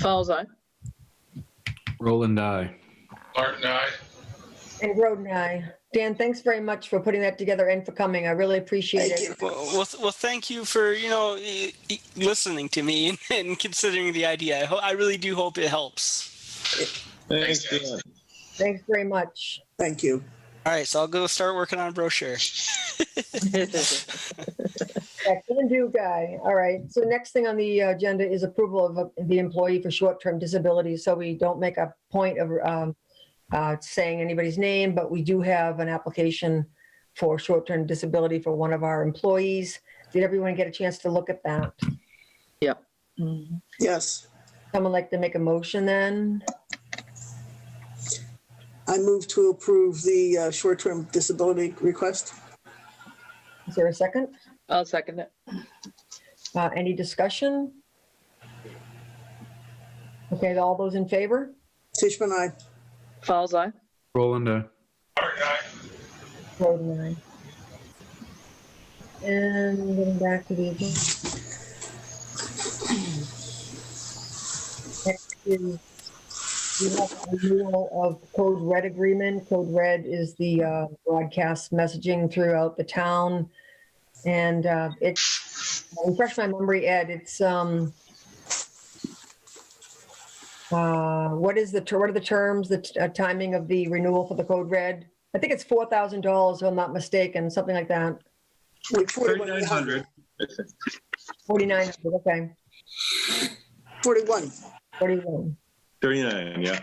Falls eye. Roland, aye. Martin, aye. And Groden, I. Dan, thanks very much for putting that together and for coming. I really appreciate it. Well, well, well, thank you for you know e- e- listening to me and, and considering the idea. I, ho- I really do hope it helps. Thanks, Thanks, guys. Dan. Thanks very much. Thank you. All right, so I'll go start working on a brochure. Yeah, can do, guy. All right. So next thing on the agenda is approval of uh, the employee for short-term disability. So we don't make a point of um, uh, saying anybody's name, but we do have an application for short-term disability for one of our employees. Did everyone get a chance to look at that? Mm-hmm. Yes, Someone like to make a motion then? I move to approve the uh, short-term disability request. Is there a second? I'll second it. Uh, Any discussion? Okay, all those in favor? Tishman, I. Falls eye. Roland, aye. Martin, aye. Vote in aye. And getting back to the. agenda. Next is we have a renewal of Code Red agreement. Code Red is the uh, broadcast messaging throughout the town. And uh, it, refresh my memory, Ed, it's, um, uh, what is the, ter- what are the terms, the t- uh, timing of the renewal for the Code Red? I think it's four thousand dollars, if I'm not mistaken, something like that. Like 41, 3,900. Forty-nine, okay, 41. forty-one. 39, yeah.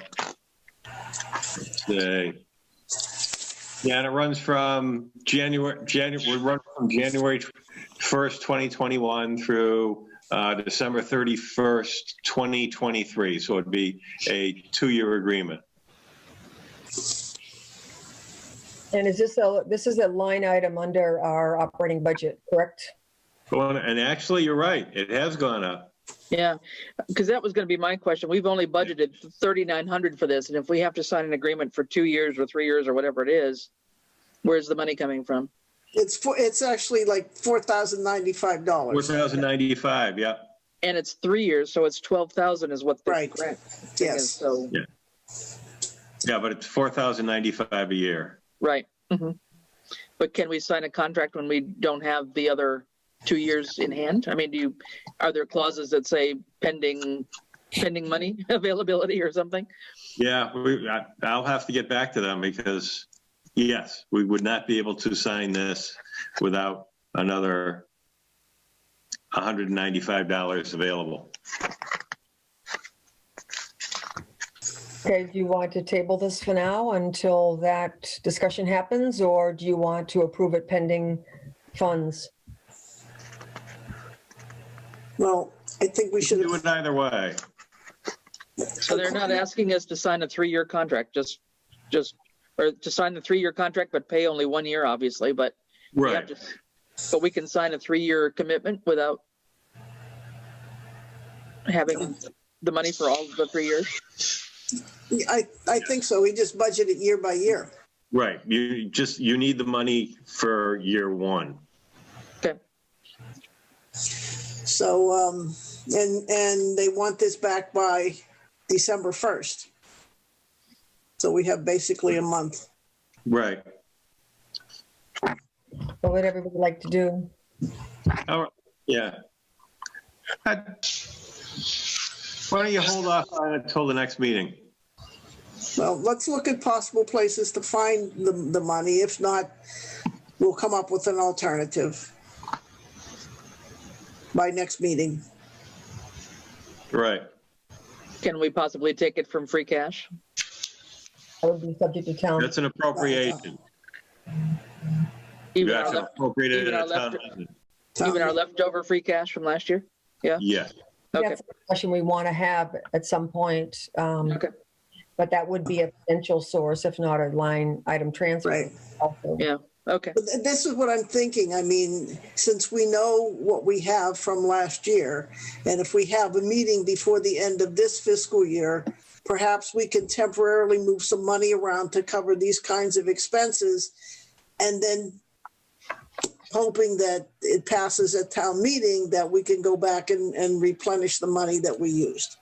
Yay. Yeah, and it runs from January, January, would run from January 1st, 2021 through uh, December 31st, 2023. So it'd be a two-year agreement. And is this a, this is a line item under our operating budget, correct? Go on, And actually, you're right, it has gone up. Yeah, because that was going to be my question. We've only budgeted 3,900 for this. And if we have to sign an agreement for two years or three years or whatever it is, where's the money coming from? It's four, it's actually like $4,095. $4,095, yeah. And it's three years, so it's 12,000 is what the Right. grant thing is, Yes, So, Yeah, but it's $4,095 a year. right. mhm. But can we sign a contract when we don't have the other two years in hand? I mean, do you, are there clauses that say pending, pending money availability or something? Yeah, we, I, I'll have to get back to them because, yes, we would not be able to sign this without another $195 available. Okay, do you want to table this for now until that discussion happens, or do you want to approve it pending funds? well, I think we We should should, do it either way. So they're not asking us to sign a three-year contract, just, just, or to sign the three-year contract, but pay only one year, obviously, but. we have Right. to- But we can sign a three-year commitment without having the money for all the three years. I, I think so. We just budget it year by year. Right. You just, you need the money for year one. So, um, and, and they want this back by December 1st. So we have basically a month. Right. What would everybody like to do? All right. Yeah. I- Why don't you hold off on it until the next meeting? Well, let's look at possible places to find the, the money. If not, we'll come up with an alternative by next meeting. Right. Can we possibly take it from free cash? I would be subject to town. That's an appropriation. You Even our have to left- appropriate it even at our a town. left- meeting. even our leftover free cash from last year? Yes. Okay, That's a discussion we want to have at some point. um, Okay. But that would be a potential source, if not a line item transfer. Right. also. okay, But th- this is what I'm thinking. I mean, since we know what we have from last year, and if we have a meeting before the end of this fiscal year, perhaps we can temporarily move some money around to cover these kinds of expenses. And then hoping that it passes at town meeting, that we can go back and, and replenish the money that we used.